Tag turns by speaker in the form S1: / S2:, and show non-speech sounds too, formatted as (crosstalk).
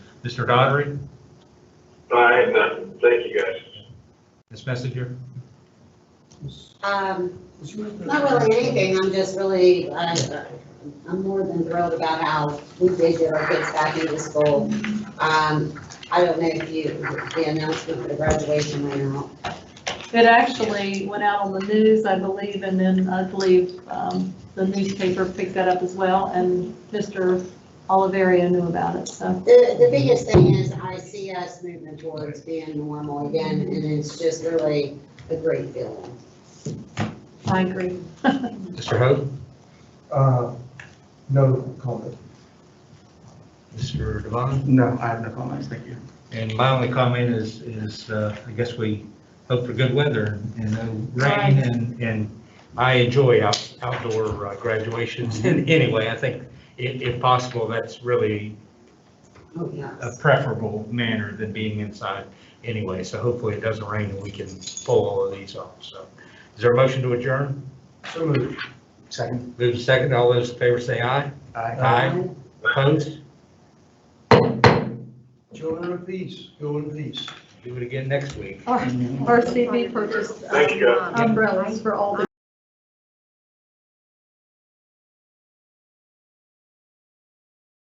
S1: Mr. Dodgery,
S2: I have nothing. uh, Thank you, guys.
S1: Ms. Messenger?
S3: Um, Not really anything, I'm just really, I- I'm more than thrilled about how we did get our kids back into school. Um, I don't know if you, the announcement for the graduation went out.
S4: It actually went out on the news, I believe, and then I believe um, the newspaper picked that up as well, and Mr. Oliveria knew about it, so.
S3: The, the biggest thing is I see us moving towards being normal again, and it's just really a great feeling.
S4: I agree. (laughs)
S1: Mr. Hope?
S5: Uh, No comment.
S1: Mr. Devon?
S5: No, I have no comments, thank you.
S1: And my only comment is, is uh, I guess we hope for good weather and no rain.
S4: Right.
S1: And, and I enjoy out outdoor uh, graduations. And anyway, I think if, if possible, that's really
S3: Oh,
S1: a
S3: yes.
S1: preferable manner than being inside anyway. So hopefully it doesn't rain and we can pull all of these off. So is there a motion to adjourn?
S5: So moved. Second.
S1: Move to second. All those in favor say aye.
S5: Aye.
S1: Aye. Opposed?
S5: Children of peace, go in peace.
S1: Do it again next week.
S4: Our- Our CB purchased um,
S2: Thank you, guys.
S4: umbrellas for all the